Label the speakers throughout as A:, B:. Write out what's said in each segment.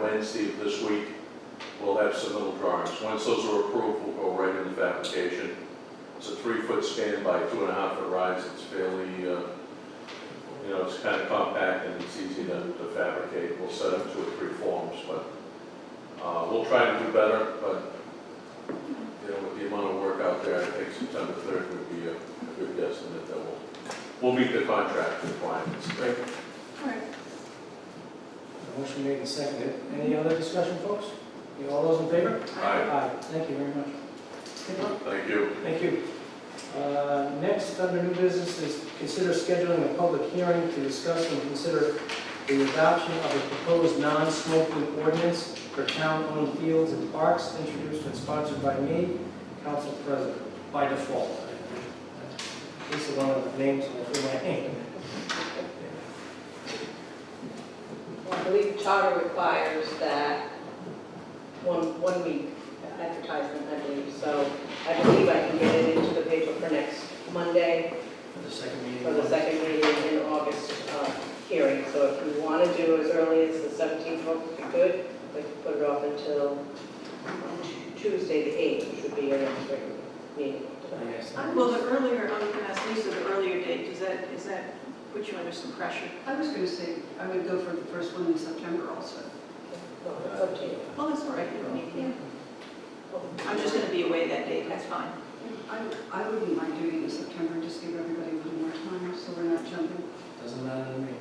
A: Wednesday of this week, we'll have some little drawings. Once those are approved, we'll go right into the application. It's a three-foot span by two and a half foot rise, it's fairly, uh, you know, it's kind of compact and it's easy to to fabricate. We'll set up two or three forms, but uh, we'll try to do better, but, you know, with the amount of work out there, I think September 3rd would be a a good guesstimate that we'll, we'll meet the contract requirements.
B: Right.
C: Motion made and seconded. Any other discussion, folks? You All those in favor?
A: Aye.
C: Aye. Thank you very much. Good luck.
A: Thank you.
C: Thank you. Uh, Next, under new business is consider scheduling a public hearing to discuss and consider the adoption of a proposed non-smoking ordinance for town-owned fields and parks introduced and sponsored by me, council president, by default. This is one of the names in my name.
D: Well, I believe charter requires that one, one week advertisement, I believe. So I believe I can get it into the paper for next Monday
C: For the second meeting.
D: for the second meeting in August uh, hearing. So if you want to do as early as the 17th, would be good. We can put it off until Tuesday, the 8th, which would be your next regular meeting.
C: Yes.
B: Well, the earlier, I'm going to ask Lisa, the earlier date, does that, is that put you under some pressure?
E: I was going to say, I would go for the first one in September also.
D: Well, it's up to you.
B: Well, that's all right, you don't need me. I'm just going to be away that day, that's fine.
E: I, I wouldn't mind doing it in September, just give everybody a little more time, so we're not jumping.
C: Doesn't matter to me.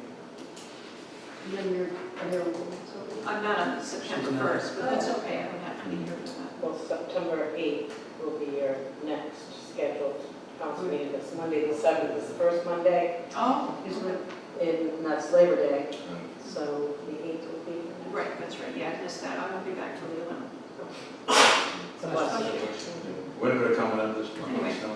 E: And then you're available, so.
B: I'm not on September
C: She's not.
B: 1st, but that's okay, I don't have to be here for that.
D: Well, September 8th will be your next scheduled council meeting. It's Monday, the 7th is the first Monday,
B: Oh,
E: Is what,
D: and that's Labor Day, so the 8th will be your next.
B: right, that's right, yeah, I missed that, I won't be back till the 11th.
D: It's a
B: Oh,
D: blessing.
F: Winter comment on this, on the
B: Anyway.
F: snow?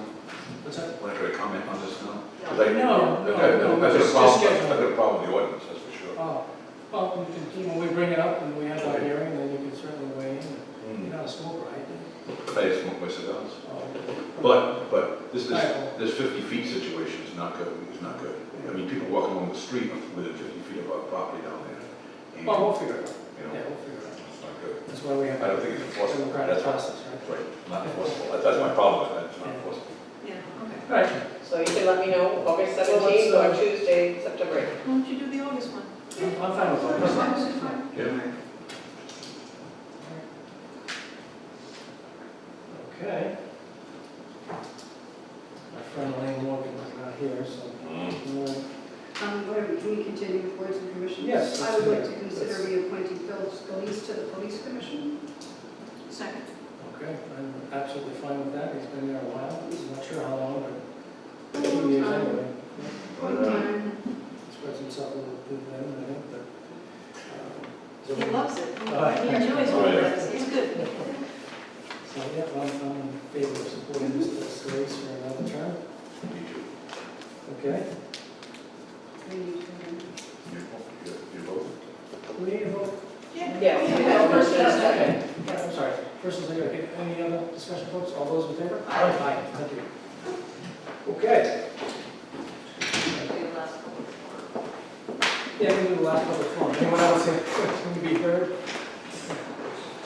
C: What's that?
F: Winter comment on the snow?
B: No.
F: 'Cause I-
C: No, no,
F: I've got-
C: no,
F: I've got a
C: just-
F: problem-
C: just schedule.
F: I've got a problem with the ordinance, that's for sure.
C: Oh, well, we can- you know, we bring it up and we have our hearing, then you can certainly weigh in. You're
F: Hmm.
C: not a smoker, I think.
F: I just smoke my cigars.
C: Oh.
F: But, but this, this,
C: Right.
F: this fifty feet situation is not good, is not good. I mean, people walking along the street within fifty feet of our property down there. and,
C: Well, we'll figure it out.
F: You
C: Yeah,
F: know,
C: we'll figure it out.
F: it's not good.
C: That's why we have
F: I don't think it's
C: a
F: enforceable.
C: democratic
F: That's
C: process, right?
F: Right, not enforceable. That- That's my problem, with that. it's not enforceable.
B: Yeah, okay.
C: Right.
D: So you can let me know August
C: Well, let's,
D: 17th
C: uh,
D: or Tuesday, September 8th.
B: Why don't you do the August one?
C: I'm I'm fine
B: Oh,
C: with all
E: as long
C: this.
E: as it's fine.
F: Yeah.
C: Okay. My friend Elaine Morgan is not here, so.
F: Mm.
E: Um, whatever, can we continue with boards and commissions?
C: Yes,
E: I would like to
C: let's-
E: consider reappointing Phil Scalise to the police commission.
B: Second.
C: Okay, I'm absolutely fine with that. He's been there a while. I'm not sure how long, but a few years anyway.
E: One time,
C: Spreads himself a little thin then, I think, but. um,
B: He loves it.
C: Uh,
B: He enjoys all of this. It's good.
C: So, yeah, I'm, I'm in favor of supporting Mr. Solis for another term,
F: Me too.
C: okay?
E: we need to.
F: You, you- you both?
C: We need a vote.
B: Yeah. Oh,
D: Yes,
B: Yeah,
D: you have
B: first
D: first and
B: and second.
D: second.
C: Yeah, I'm sorry, first and second, okay, any other discussion, folks, all those in favor?
B: Aye.
C: Aye, thank you. Okay, yeah, we do the last public forum, anyone else here can be heard?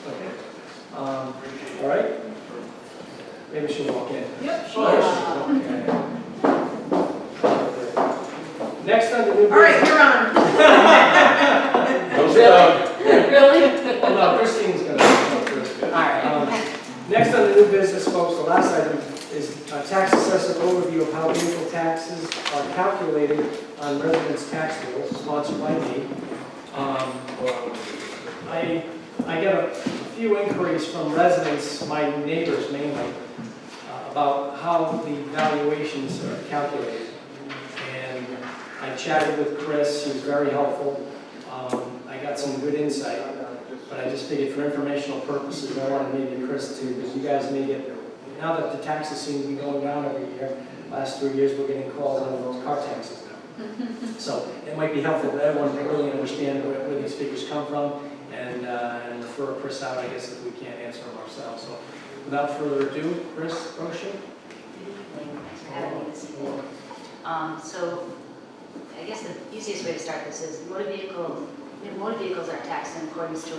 C: Okay, um, all right? Maybe she'll walk in.
B: Yep.
C: Sure. Okay. Next on the new.
B: All right, you're on.
A: Don't stop.
B: Really?
C: business- Well, no, Christine's gonna go first.
B: All right.
C: Um, Next on the new business, folks, the last item is a tax assessor overview of how vehicle taxes are calculated on residents' tax bills, sponsored by me. Um, I, I get a few inquiries from residents, my neighbors mainly, uh, about how the valuations are calculated. And I chatted with Chris, he was very helpful. Um, I got some good insight. But I just figured for informational purposes, I wanted maybe Chris to, because you guys may get, now that the taxes seem to be going down every year, last three years, we're getting calls on those car taxes now. So it might be helpful for everyone to really understand where, where these figures come from and, uh, and refer Chris out, I guess, if we can't answer them ourselves. So without further ado, Chris Rocha?
G: Thanks for having me this evening. Um, So I guess the easiest way to start this is motor vehicle, motor vehicles are taxed in accordance to